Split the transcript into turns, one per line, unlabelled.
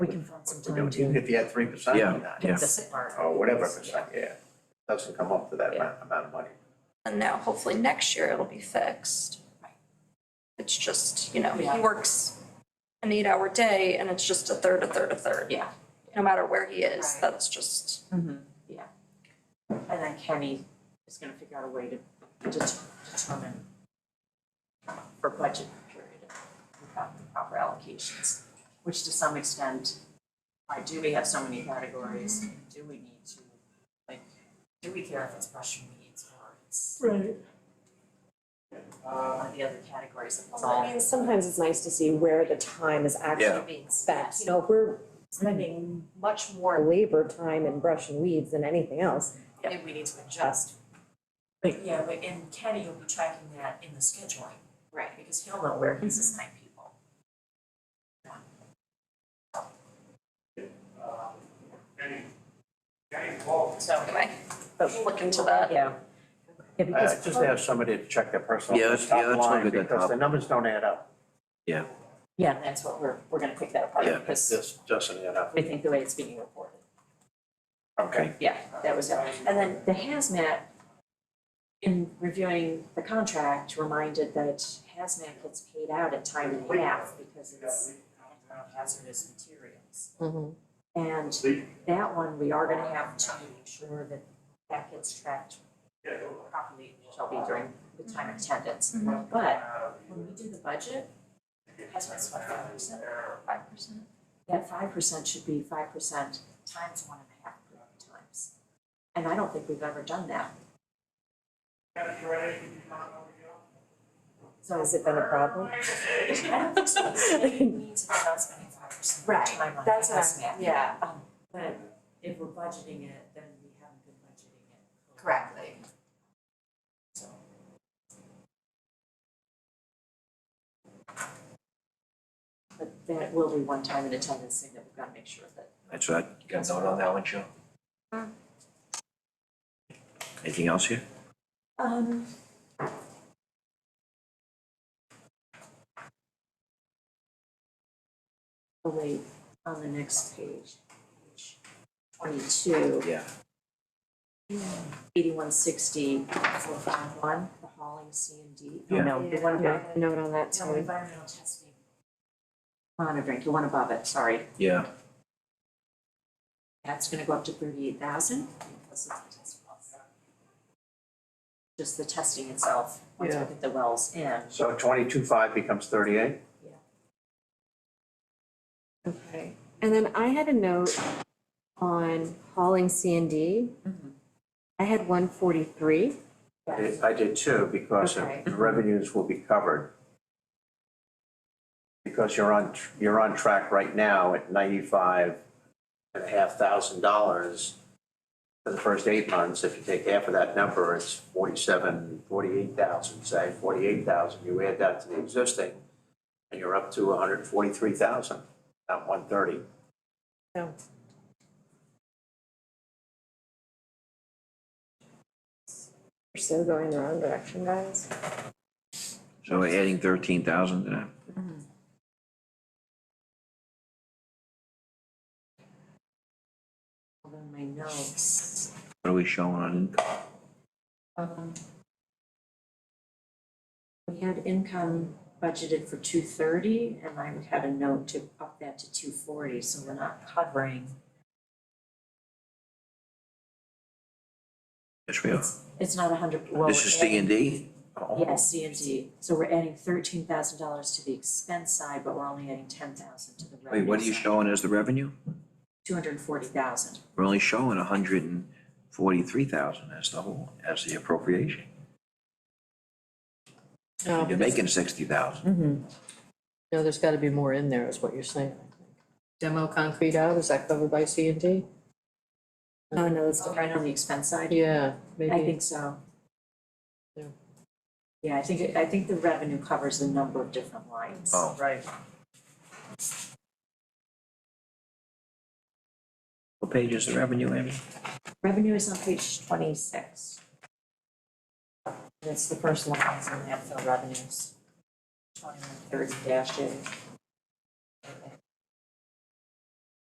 can find some
You know,
time
even
to
if you had three percent
Yeah,
on that,
yeah.
pick this apart.
or whatever percent, yeah, doesn't come up to that
Yeah.
amount, amount of money.
And now hopefully next year it'll be fixed. It's just, you know,
Yeah.
he works an eight-hour day and it's just a third, a third, a third.
Yeah.
No matter where he is,
Right.
that's just,
Mm-hmm.
Yeah. And then Kenny is gonna figure out a way to det- determine for budget period, we've got the proper allocations, which to some extent, why do we have so many categories? Do we need to, like, do we care if it's special needs or it's
Right.
one of the other categories of it's
I
all
mean, sometimes it's nice to see where the time is
Yeah.
actually
being
spent.
spent?
You know, if we're spending much more labor time in brushing weeds than anything else,
Maybe we need to adjust. But yeah, but and Kenny will be tracking that in the scheduling. Right. Because he'll know where he's assigning people. So
anyway,
but.
we'll look into that.
Yeah. Yeah, because.
Uh, just to have somebody to check their personal
Yeah, that's- yeah,
top
that's what
line,
we did,
because
top.
the numbers don't add up,
Yeah,
Yeah, and that's what we're, we're gonna pick that apart
Yeah.
because
this doesn't add up.
we think the way it's being reported.
okay.
Yeah, that was it. And then the hazmat, in reviewing the contract, reminded that hazmat gets paid out at time and a half because it's hazardous materials. And that one, we are gonna have to ensure that that gets tracked properly, shall be during the time of attendance. But when we do the budget, that's what's five percent.
Five percent.
That five percent should be five percent times one and a half times. And I don't think we've ever done that. So
Has it been a problem?
I don't think so, because it means we're not spending five percent of our time on
that's what I'm-
hazmat.
yeah.
Um, But if we're budgeting it, then we haven't been budgeting it. Correctly. So. But that will be one time in attendance thing that we've gotta make sure that
That's right. You guys all know that one, Joe?
Mm.
Anything else here?
Um. Oh wait, on the next page, page twenty-two,
Yeah.
eighty-one sixty, four five one, the hauling C and D.
Yeah.
No, the one above,
note on that
no, environmental testing. Monitoring, the one above it, sorry,
Yeah,
that's gonna go up to thirty-eight thousand because of the test wells. Just the testing itself, once we
Yeah.
get the wells in.
So twenty-two five becomes thirty-eight?
Okay, and then I had a note on hauling C and D. I had one forty-three.
I did- I did too, because if
Okay.
the revenues will be covered. Because you're on, tr- you're on track right now at ninety-five and a half thousand dollars for the first eight months. If you take half of that number, it's forty-seven, forty-eight thousand, say, forty-eight thousand. You add that to the existing, and you're up to hundred and forty-three thousand, not one thirty.
No. We're still going the wrong direction, guys.
so we're adding thirteen thousand to that.
Hold on my notes.
What are we showing on income?
Um, We had income budgeted for two thirty, and I had a note to up that to two forty, so we're not covering.
Yes, we are.
It's not a hundred, well,
This
we're
is C and D?
adding- Yeah, C and D, so we're adding thirteen thousand dollars to the expense side, but we're only adding ten thousand to the revenue
Wait, what are you showing as the revenue?
Two hundred and forty thousand,
We're only showing a hundred and forty-three thousand as the whole, as the appropriation.
Oh,
No,
You're making sixty
Mm.
thousand.
no, there's gotta be more in there, is what you're saying, I think. Demo concrete out, is that covered by C and D?
Oh, no, it's
right on the expense side,
Yeah,
I
maybe,
think so.
Yeah.
Yeah, I think, I think the revenue covers a number of different lines.
Oh,
right.
What page is the revenue, Amy?
Revenue is on page twenty-six. And it's the first line, it's in landfill revenues. Twenty-one thirty dash A.